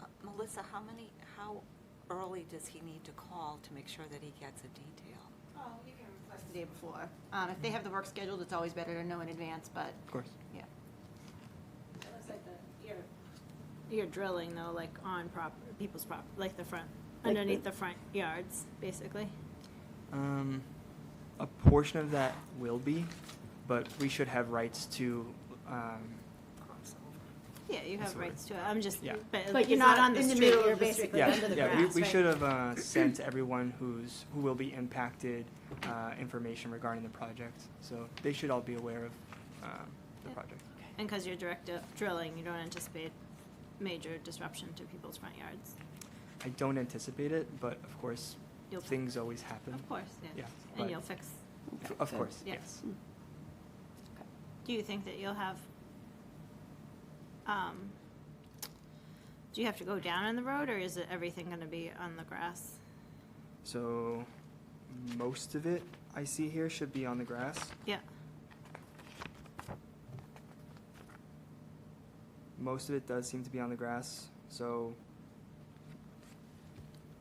Uh, Melissa, how many, how early does he need to call to make sure that he gets a detail? Oh, you can request the day before. Um, if they have the work scheduled, it's always better to know in advance, but, Of course. yeah. It looks like the, you're, you're drilling though, like on prop, people's prop, like the front, Like underneath the- the front yards, basically. Um, a portion of that will be, but we should have rights to, um, Yeah, you That's have what it- rights to it, I'm just, Yeah. but But it's you're not not on the in the street, middle of you're the street, basically like yeah, under the yeah, we, grass, we right? should have, uh, sent everyone who's, who will be impacted, uh, information regarding the project. So they should all be aware of, um, the Yeah. project. And because you're direct uh, drilling, you don't anticipate major disruption to people's front yards. I don't anticipate it, but of course, You'll- things always happen. Of course, yeah. Yeah, And but- you'll fix. F- Of course, Yeah. yes. Do you think that you'll have, um, do you have to go down on the road or is it everything gonna be on the grass? So most of it I see here should be on the grass. Yeah, Most of it does seem to be on the grass, so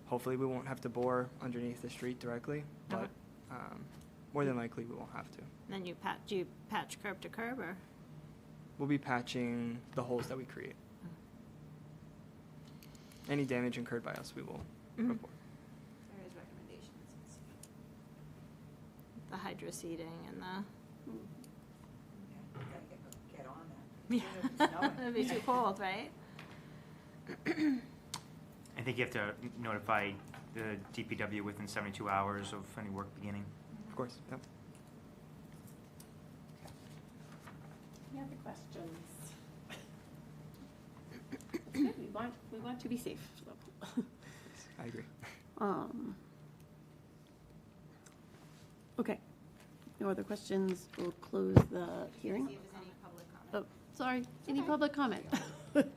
hopefully we won't have to bore underneath the street directly, but um, more than likely we won't have to. then you pat, do you patch curb to curb or? We'll be patching the holes that we create. Any damage incurred by us, we will Mhm. report. There is recommendations. the hydro seeding and the. Get on that. Yeah. It'd be too cold, right? I think you have to notify the DPW within 72 hours of any work beginning. Of course, yep. Any other questions? Good, We want, we want to be safe, so. I agree. Um, Okay. No other questions? We'll close the hearing. See if there's any public comment. Oh, sorry, any public comment?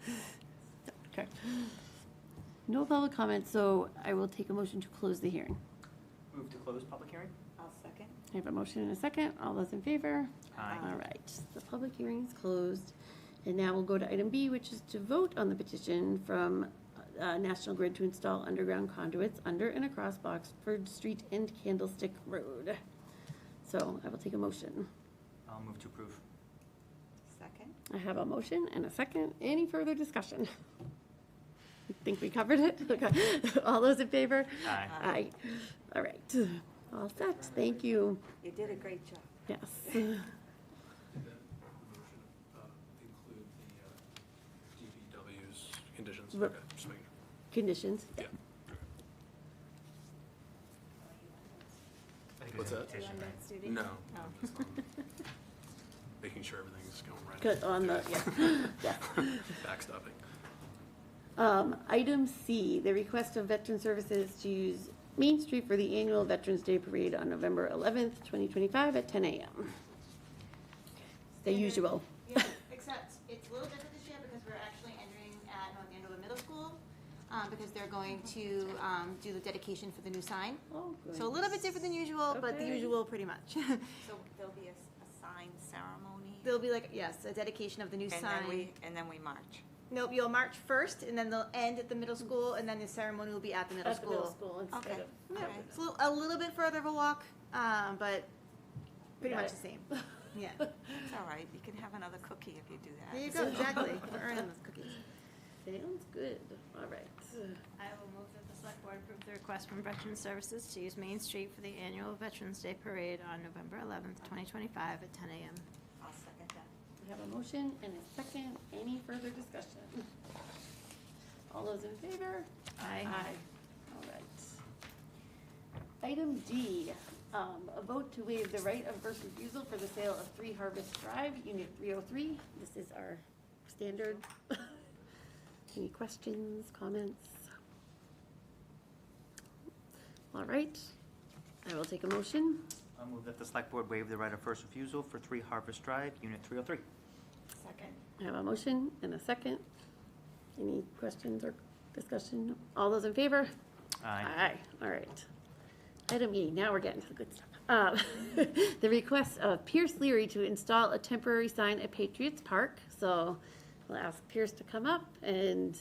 Okay. No public comment, so I will take a motion to close the hearing. Move to close public hearing? I'll second. I have a motion and a second. All those in favor? Aye. All right, the public hearing is closed. And now we'll go to item B, which is to vote on the petition from uh, National Grid to install underground conduits under and across Boxford Street and Candlestick Road. So I will take a motion. I'll move to approve. Second? I have a motion and a second. Any further discussion? I Think we covered it? Okay. All those in favor? Aye. Aye. All right, all set. Thank you. You did a great job. Yes. And then the motion uh, include the uh, DPW's conditions? Re- Okay, just making sure. Conditions? Yeah. I think What's there's an that? invitation, right? No. Oh. I'm just, um, Making sure everything's going right. Good, on the, yeah, yeah. Backstopping. Um, item C, the request of Veteran Services to use Main Street for the annual Veterans Day Parade on November eleventh, twenty twenty-five at ten AM. The Standard- usual. Yeah, except it's a little different this year because we're actually entering at North Andover Middle School, um, because they're going to, um, do the dedication for the new sign. Oh, So a little bit different than usual, but the Okay. usual pretty much. So there'll be a, s- a sign ceremony? There'll be like, yes, a dedication of the new And sign. then we, and then we march. Nope, you'll march first, and then they'll end at the middle school, and then the ceremony will be at the middle At the school. middle school instead Okay. of. Yeah, it's a little, a little bit further of a walk, um, but pretty Got much it. the same. Yeah, It's all right, you can have another cookie if you do that. there you go, exactly. We're earning those cookies. Sounds good, all right. I will move that the select board approve the request from Veterans Services to use Main Street for the annual Veterans Day Parade on November eleventh, twenty twenty-five at ten AM. I'll second that. We have a motion and a second, any further discussion? All those in favor? Aye. All right. Item D, um, a vote to waive the right of first refusal for the sale of Three Harvest Drive, Unit three oh three. This is our standard. Any questions, comments? All right, I will take a motion. I'll move that the select board waive the right of first refusal for 3 Harvest Drive, Unit 303. Second. I have a motion and a second. Any questions or discussion? All those in favor? Aye, all right. Item E, now we're getting to the good stuff. Uh, The request of Pierce Leary to install a temporary sign at Patriots Park. So we'll ask Pierce to come up and